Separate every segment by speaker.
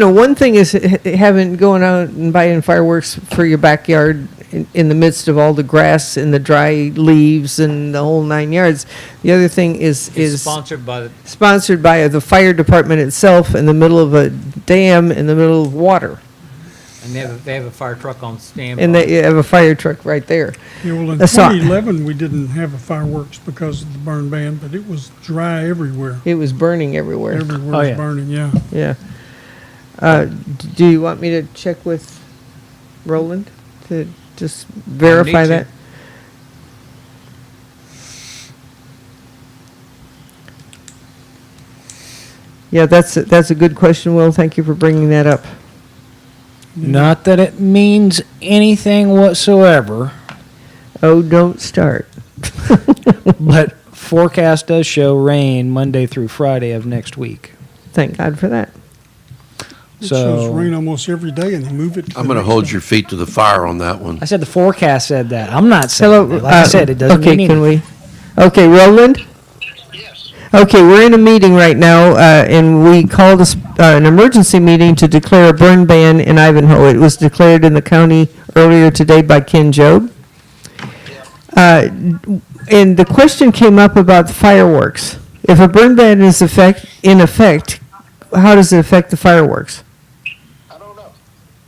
Speaker 1: know, one thing is h- h- having, going out and buying fireworks for your backyard in, in the midst of all the grass and the dry leaves and the whole nine yards. The other thing is,
Speaker 2: It's
Speaker 1: is
Speaker 2: sponsored by the,
Speaker 1: sponsored by the fire department itself in the middle of a dam in the middle of water.
Speaker 2: and they have, a- they have a fire truck on standby.
Speaker 1: And they have a fire truck right there.
Speaker 3: Yeah, well, in
Speaker 1: I saw-
Speaker 3: 2011, we didn't have a fireworks because of the burn ban, but it was dry everywhere.
Speaker 1: It was burning everywhere.
Speaker 3: Everywhere
Speaker 4: Oh,
Speaker 3: was
Speaker 4: yeah.
Speaker 3: burning, yeah.
Speaker 1: Yeah. Uh, d- do you want me to check with Roland to just verify
Speaker 2: to.
Speaker 1: that? Yeah, that's, a- that's a good question, Will. Thank you for bringing that up.
Speaker 4: Not that it means anything whatsoever,
Speaker 1: Oh, don't start.
Speaker 4: but forecast does show rain Monday through Friday of next week.
Speaker 1: Thank God for that.
Speaker 3: It shows
Speaker 4: So-
Speaker 3: rain almost every day and they move it. to the
Speaker 5: I'm going to
Speaker 3: next
Speaker 5: hold
Speaker 3: day.
Speaker 5: your feet to the fire on that one.
Speaker 4: I said the forecast said that. I'm not saying
Speaker 1: Hello.
Speaker 4: that. Like I
Speaker 1: uh,
Speaker 4: said, it doesn't
Speaker 1: okay,
Speaker 4: mean
Speaker 1: can
Speaker 4: anything.
Speaker 1: we? Okay, Roland? Yes. Okay, we're in a meeting right now, uh, and we called a s- uh, an emergency meeting to declare a burn ban in Ivanhoe. It was declared in the county earlier today by Ken Job. Uh, And the question came up about fireworks. If a burn ban is effect, in effect, how does it affect the fireworks?
Speaker 6: I don't know.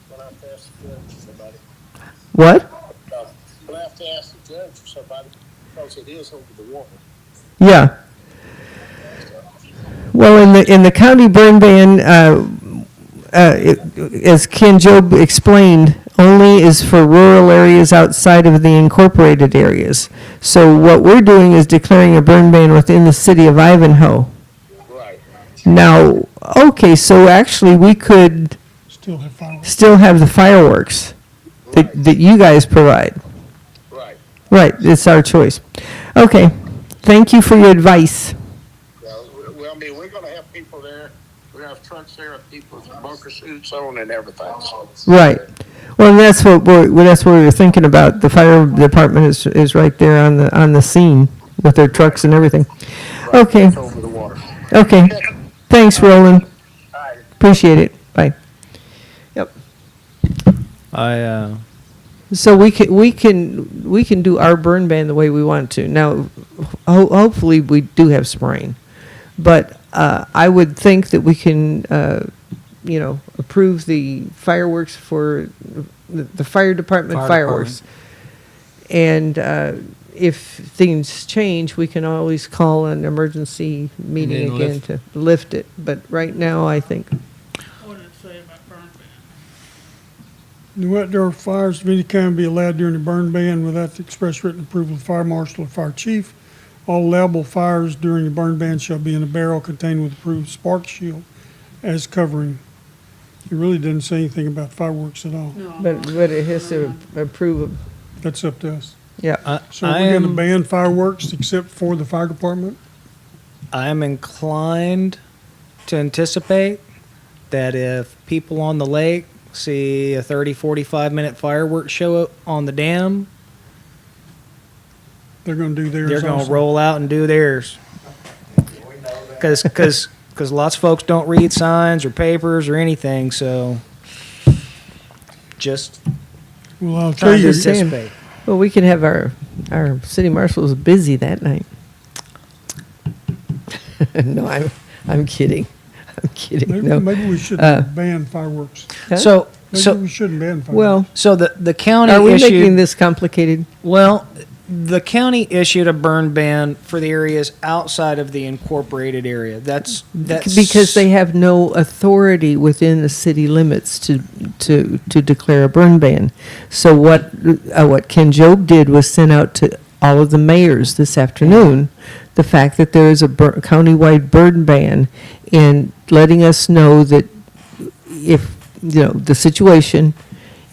Speaker 6: We'll have to ask the judge or somebody.
Speaker 1: What?
Speaker 6: Uh, We'll have to ask the judge or somebody, because it is over the water.
Speaker 1: Yeah. Well, in the, in the county burn ban, uh, uh, it- as Ken Job explained, only is for rural areas outside of the incorporated areas. So what we're doing is declaring a burn ban within the city of Ivanhoe.
Speaker 6: Right.
Speaker 1: Now, okay, so actually, we could
Speaker 3: Still have fireworks.
Speaker 1: still have the fireworks that, that you guys provide.
Speaker 6: Right.
Speaker 1: Right, it's our choice. Okay, thank you for your advice.
Speaker 6: Well, we- well, I mean, we're gonna have people there, we're gonna have trucks there, people with bunker suits on and everything, so.
Speaker 1: Right. Well, and that's what we're, well, that's what we were thinking about. The fire department is, is right there on the, on the scene with their trucks and everything. Okay,
Speaker 6: It's over the water.
Speaker 1: okay. Thanks, Roland.
Speaker 6: All right.
Speaker 1: Appreciate it. Bye.
Speaker 4: I uh,
Speaker 1: So we can, we can, we can do our burn ban the way we want to. Now, ho- hopefully, we do have some rain. But uh, I would think that we can, uh, you know, approve the fireworks for the, the fire department
Speaker 2: Fire
Speaker 1: fireworks. And uh, if things change, we can always call an emergency meeting
Speaker 2: then
Speaker 1: again
Speaker 2: lift-
Speaker 1: to lift it. But right now, I think
Speaker 7: What did it say about burn ban?
Speaker 3: No outdoor fires of any kind be allowed during the burn ban without the express written approval of the fire marshal or fire chief. All allowable fires during the burn ban shall be in a barrel contained with approved spark shield as covering. It really doesn't say anything about fireworks at all.
Speaker 7: No.
Speaker 1: but, but it has to approve of,
Speaker 3: That's up to us.
Speaker 1: yeah.
Speaker 4: I,
Speaker 3: So
Speaker 4: I
Speaker 3: we're gonna
Speaker 4: am
Speaker 3: ban fireworks except for the fire department?
Speaker 4: I am inclined to anticipate that if people on the lake see a 30 45 minute fireworks show up on the dam,
Speaker 3: They're gonna do theirs
Speaker 4: they're going to
Speaker 3: also.
Speaker 4: roll out and do theirs. Because because lots of folks don't read signs or papers or anything, so just
Speaker 3: Well, I'll tell
Speaker 4: trying to
Speaker 3: you,
Speaker 4: anticipate.
Speaker 1: Well, we could have our, our city marshals busy that night. No, I'm, I'm kidding. I'm kidding,
Speaker 3: maybe,
Speaker 1: no.
Speaker 3: maybe we
Speaker 1: Uh,
Speaker 3: shouldn't ban fireworks.
Speaker 1: Huh?
Speaker 4: So
Speaker 3: Maybe
Speaker 4: so
Speaker 3: we shouldn't ban fireworks.
Speaker 1: Well,
Speaker 4: so the the county
Speaker 1: are we
Speaker 4: issue
Speaker 1: making this complicated?
Speaker 4: Well, the county issued a burn ban for the areas outside of the incorporated area. That's that's
Speaker 1: Because they have no authority within the city limits to, to, to declare a burn ban. So what, uh, what Ken Job did was send out to all of the mayors this afternoon the fact that there is a bur- countywide burn ban and letting us know that if, you know, the situation,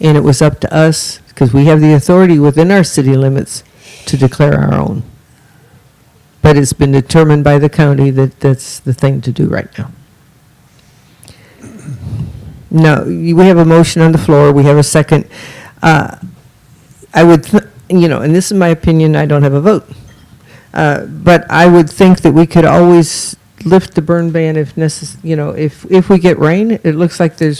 Speaker 1: and it was up to us, because we have the authority within our city limits to declare our own. But it's been determined by the county that that's the thing to do right now. No, you- we have a motion on the floor, we have a second. Uh, I would, th- you know, and this is my opinion, I don't have a vote. Uh, But I would think that we could always lift the burn ban if necess, you know, if, if we get rain, it looks like there's